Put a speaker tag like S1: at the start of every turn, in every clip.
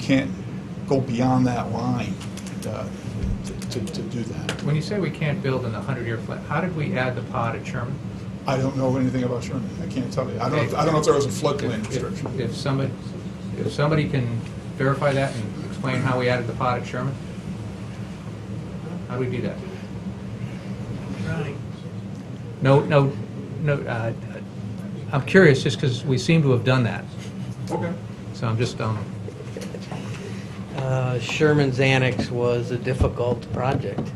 S1: can't go beyond that line uh, to, to do that.
S2: When you say we can't build in the 100-year flood, how did we add the pod at Sherman?
S1: I don't know anything about Sherman, I can't tell you. I don't, I don't know if there was a floodplain
S2: If- if-
S1: restriction.
S2: If somebody, if somebody can verify that and explain how we added the pod at Sherman? How do we do that? No, no, no, uh, I'm curious, just because we seem to have done that,
S1: Okay.
S2: so I'm just, um,
S3: Uh, Sherman's Annex was a difficult project.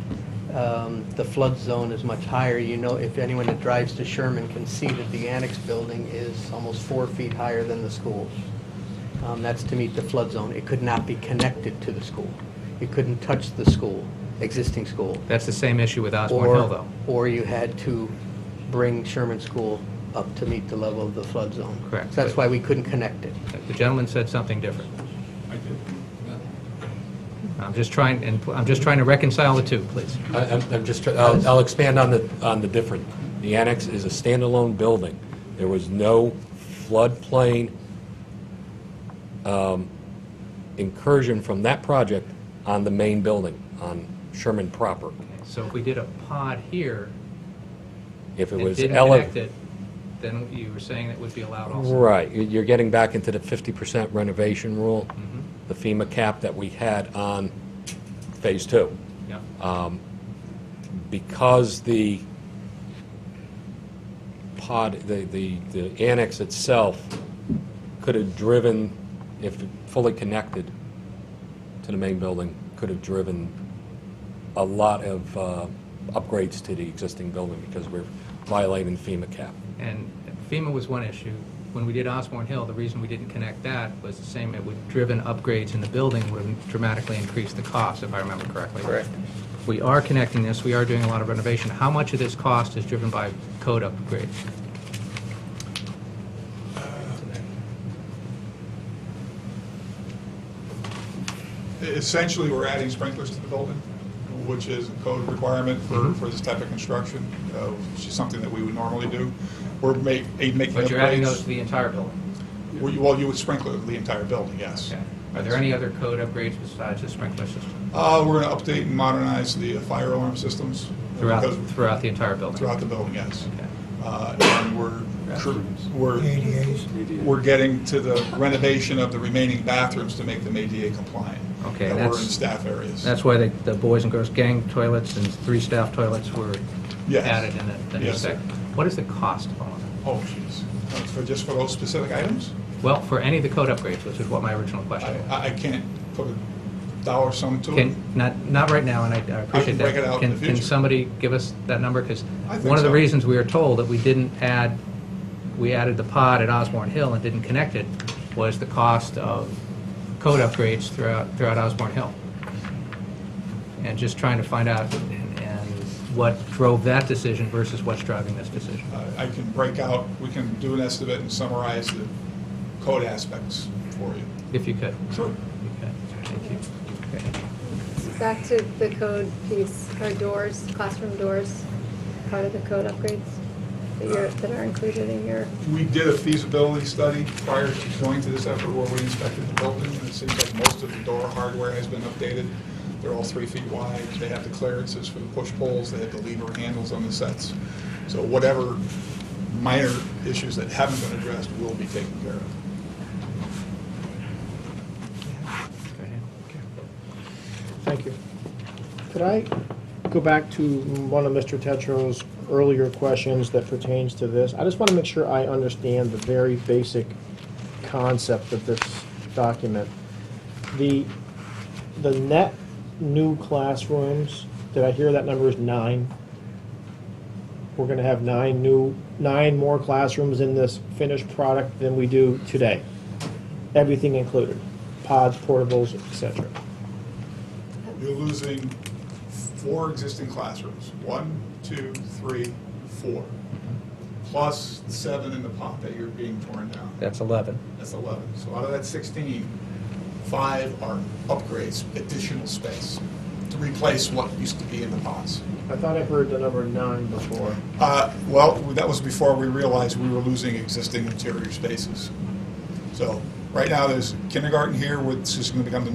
S3: Um, The flood zone is much higher. You know, if anyone that drives to Sherman can see that the annex building is almost four feet higher than the school. Um, That's to meet the flood zone. It could not be connected to the school. It couldn't touch the school, existing school.
S2: that's the same issue with Osborne Hill,
S3: Or,
S2: though.
S3: or you had to bring Sherman School up to meet the level of the flood zone.
S2: Correct.
S3: So That's why we couldn't connect it.
S2: The gentleman said something different. I'm just trying, and I'm just trying to reconcile the two, please.
S4: I- I'm I'm just, try- I'll I'll expand on the, on the different. The annex is a standalone building. There was no floodplain um, incursion from that project on the main building, on Sherman proper.
S2: So if we did a pod here
S4: If it
S2: and
S4: was
S2: didn't connect
S4: elevated.
S2: it, then you were saying that would be allowed also?
S4: Right, You- you're getting back into the 50% renovation rule,
S2: Mm-hmm.
S4: the FEMA cap that we had on Phase Two.
S2: Yeah.
S4: because the pod, the, the, the annex itself could have driven, if fully connected to the main building, could have driven a lot of uh, upgrades to the existing building because we're violating FEMA cap.
S2: And FEMA was one issue. When we did Osborne Hill, the reason we didn't connect that was the same, it would driven upgrades in the building would have dramatically increased the cost, if I remember correctly. Correct. We are connecting this, we are doing a lot of renovation. How much of this cost is driven by code upgrades?
S1: Essentially, we're adding sprinklers to the building, which is a code requirement
S2: Mm-hmm.
S1: for, for this type of construction, uh, which is something that we would normally do. We're make, eh, making
S2: But you're adding those to
S1: upgrades.
S2: the entire building.
S1: Well, you- well, you would sprinkler the entire building, yes.
S2: Okay. Are there any other code upgrades besides the sprinkler system
S1: Uh, We're going to update and modernize the uh, fire alarm systems. uh,
S2: throughout,
S1: because-
S2: throughout the entire building?
S1: Throughout the building, yes.
S2: Okay.
S1: Uh, And we're,
S2: Restrooms.
S1: we're,
S5: ADAs.
S1: we're getting to the renovation of the remaining bathrooms to make them ADA compliant.
S2: Okay,
S1: That were
S2: that's-
S1: in staff areas.
S2: That's why the, the boys and girls gang toilets and three staff toilets were
S1: Yes.
S2: added in that, that
S1: Yes.
S2: respect. What is the cost of all of that?
S1: Oh, jeez. Uh, For, just for those specific items?
S2: Well, for any of the code upgrades, which is what my original
S1: I,
S2: question was.
S1: I I can't put a dollar sum to it.
S2: Can, not, not right now, and I I appreciate that.
S1: break it out in
S2: Can-
S1: the
S2: Can
S1: future.
S2: somebody give us that number? Because
S1: I think
S2: one of the
S1: so.
S2: reasons we were told that we didn't add, we added the pod at Osborne Hill and didn't connect it was the cost of code upgrades throughout, throughout Osborne Hill. And just trying to find out and and what drove that decision versus what's driving this decision.
S1: Uh, I can break out, we can do an estimate and summarize the code aspects for you.
S2: If you could.
S1: Sure.
S2: Okay, Thank you. Okay.
S6: Back to the code piece, are doors, classroom doors, part of the code upgrades that you're, that are included in your,
S1: We did a feasibility study prior to going to this effort where we inspected the building, and it seems like most of the door hardware has been updated. They're all three feet wide, they have the clearances for the push poles, they have the lever handles on the sets. So whatever minor issues that haven't been addressed will be taken care of.
S2: Go ahead.
S7: Thank you. Could I go back to one of Mr. Tetro's earlier questions that pertains to this? I just want to make sure I understand the very basic concept of this document. The, the net new classrooms, did I hear that number is nine? We're going to have nine new, nine more classrooms in this finished product than we do today. Everything included, pods, portables, et cetera.
S1: You're losing four existing classrooms, one, two, three, four, plus the seven in the pot that you're being torn down.
S2: That's 11.
S1: That's 11. So out of that 16, five are upgrades, additional space to replace what used to be in the pods.
S7: I thought I heard the number nine before.
S1: Uh, Well, that was before we realized we were losing existing interior spaces. So Right now, there's kindergarten here, which is going to become the new